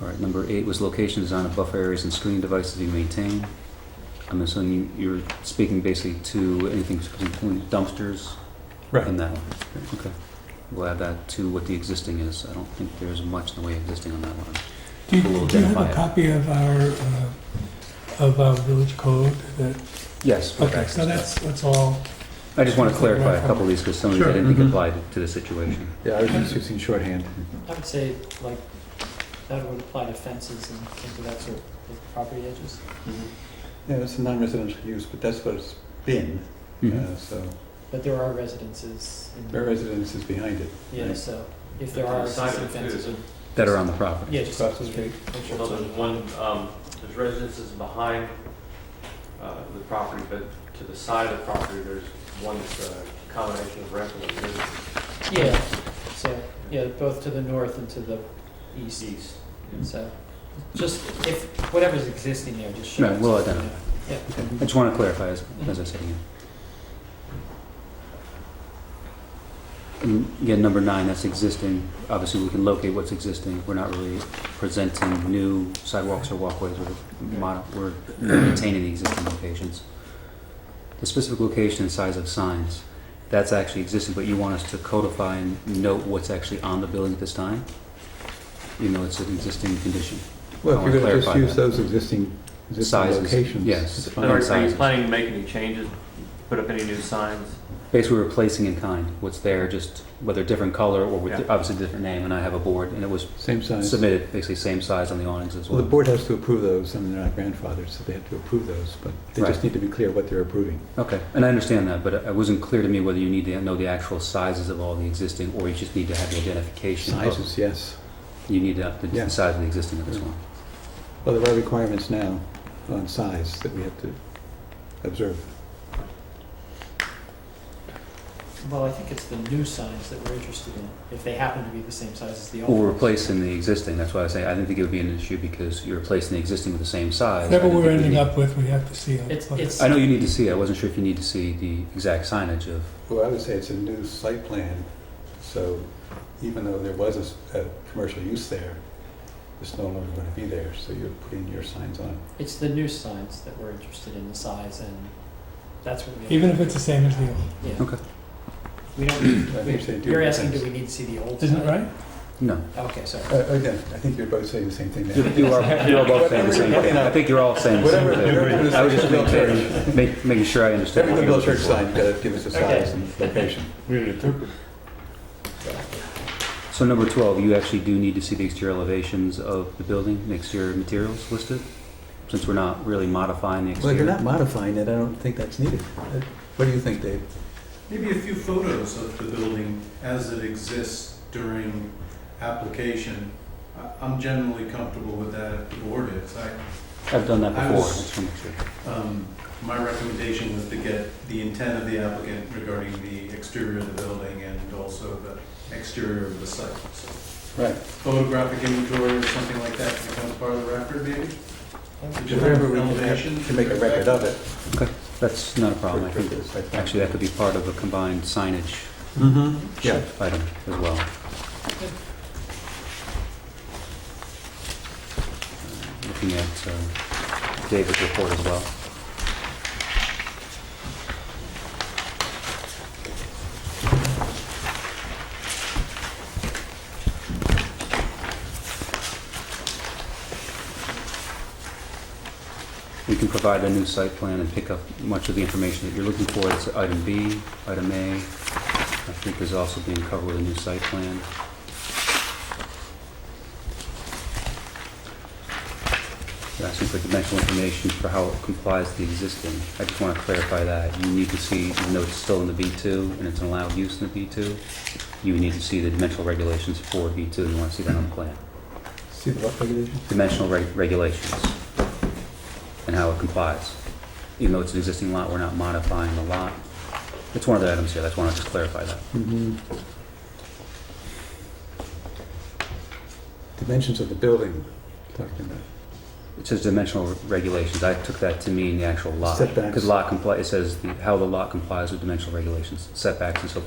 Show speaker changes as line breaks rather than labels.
right, number eight was location design of buffer areas and screening devices you maintain. I'm assuming you, you're speaking basically to anything between dumpsters and that one. Okay. We'll add that to what the existing is. I don't think there's much in the way of existing on that one.
Do
We'll
you, do you have
identify
a
it.
copy of our, uh, of our village code that,
Yes. we'll
okay,
back
so
this up.
that's, that's all.
I just want to clarify a couple of these because some of these I
Sure, Mm-hmm.
didn't think
mhm.
applied to the situation.
Yeah, I was just using shorthand.
I would say like that would apply to fences and things of that sort, like property edges.
Yeah, it's a non-residential use, but that's what it's been,
Mm-hmm.
uh, so
But there are residences in
their residence is behind it.
Yeah,
right?
so if there are
Side of
existing
it, too.
fences, or-
That are on the property.
yeah, just.
Across the street.
make sure
Well,
it's-
there's one, um, there's residences behind, uh, the property, but to the side of the property, there's one that's a combination of rental and business
Yeah, so, yeah, both to the north and to the east,
east.
so, just if, whatever's existing there, just show.
Right,
it.
we'll identify. Okay. I just want to clarify as, as I said again. And Mm, Again, number nine, that's existing. Obviously, we can locate what's existing. We're not really presenting new sidewalks or walkways. We're, mod- we're maintaining the existing locations. The specific location and size of signs, that's actually existing, but you want us to codify and note what's actually on the building at this time? You know, it's an existing condition. I
Well, if
wanna
you're gonna just
clarify
use
that.
those existing, existing
Sizes,
locations.
yes.
it's
Are
fine.
Alright.
are you
Sizes.
planning to make any changes, put up any new signs?
basically replacing in kind what's there, just whether different color or with
Yeah.
obviously different name. And I have a board, and it was
Same size.
submitted basically same size on the awnings as
Well,
well.
the board has to approve those, and they're not grandfathered, so they have to approve those, but they
Right.
just need to be clear what they're approving.
Okay, and I understand that, but it it wasn't clear to me whether you need to know the actual sizes of all the existing, or you just need to have the identification. of-
Sizes, yes.
You need to, the
Yeah.
size of the existing of this one.
Well, there are requirements now on size that we have to observe.
Well, I think it's the new signs that we're interested in, if they happen to be the same size as the old.
Or
ones.
replacing the existing. That's why I say I didn't think it would be an issue because you're replacing the existing with the same size. I
Whatever
didn't
we're
think we
ending
need-
up with, we have to see. on-
It's, it's.
I know you need to see. I wasn't sure if you need to see the exact signage of.
Well, I would say it's a new site plan, so even though there was a s- a, commercial use there, it's no longer going to be there, so you're putting your signs on.
It's the new signs that we're interested in, the size, and that's what we,
Even if it's the same as the old,
yeah,
Okay.
we
I
don't,
think they
we-
do
you're asking, do
things.
we need to see the old sign?
isn't it right?
No,
Okay, sorry.
Uh, Again, I think you're both saying the same thing
you
now.
you are you are both saying the same thing. I think you're all saying the same
Whatever,
thing.
whatever the
I was just
Centerville
making,
Church,
make- making sure I understand.
every
what
Centerville
you're
Church
looking for.
sign, you gotta give us the
Okay.
size and location.
So number 12, you actually do need to see the exterior elevations of the building, the exterior materials listed, since we're not really modifying the
Well, if you're not
exterior.
modifying it, I don't think that's needed. Uh, What do you think, Dave?
Maybe a few photos of the building as it exists during application. I- I'm generally comfortable with that if the board is. I,
I've done that
I
before.
was-
Just wanna make sure.
um, My recommendation was to get the intent of the applicant regarding the exterior of the building and also the exterior of the site. So
Right.
Photographic inventory or something like that becomes part of the record maybe?
Whatever we can have-
Elevation.
can make a record of it.
That's not a problem. I
for- for
think,
the site plan.
actually, that could be part of a combined signage
Mhm, yeah.
item as well. Looking at uh, David's report as well. We can provide a new site plan and pick up much of the information that you're looking for. It's item B, item A, I think is also being covered with a new site plan. You're asking for dimensional information for how it complies to the existing. I just want to clarify that. You need to see, even though it's still in the B2 and it's an allowed use in the B2, you need to see the dimensional regulations for B2. You want to see that on the plan.
See the lot regulation?
Dimensional reg- regulations and how it complies. Even though it's an existing lot, we're not modifying the lot. It's one of the items here. That's why I want to just clarify that.
Mhm. Dimensions of the building, talking about.
It says dimensional regulations. I took that to mean the actual lot.
Setbacks.
Because lot compli, it says the- how the lot complies with dimensional regulations, setbacks and so forth.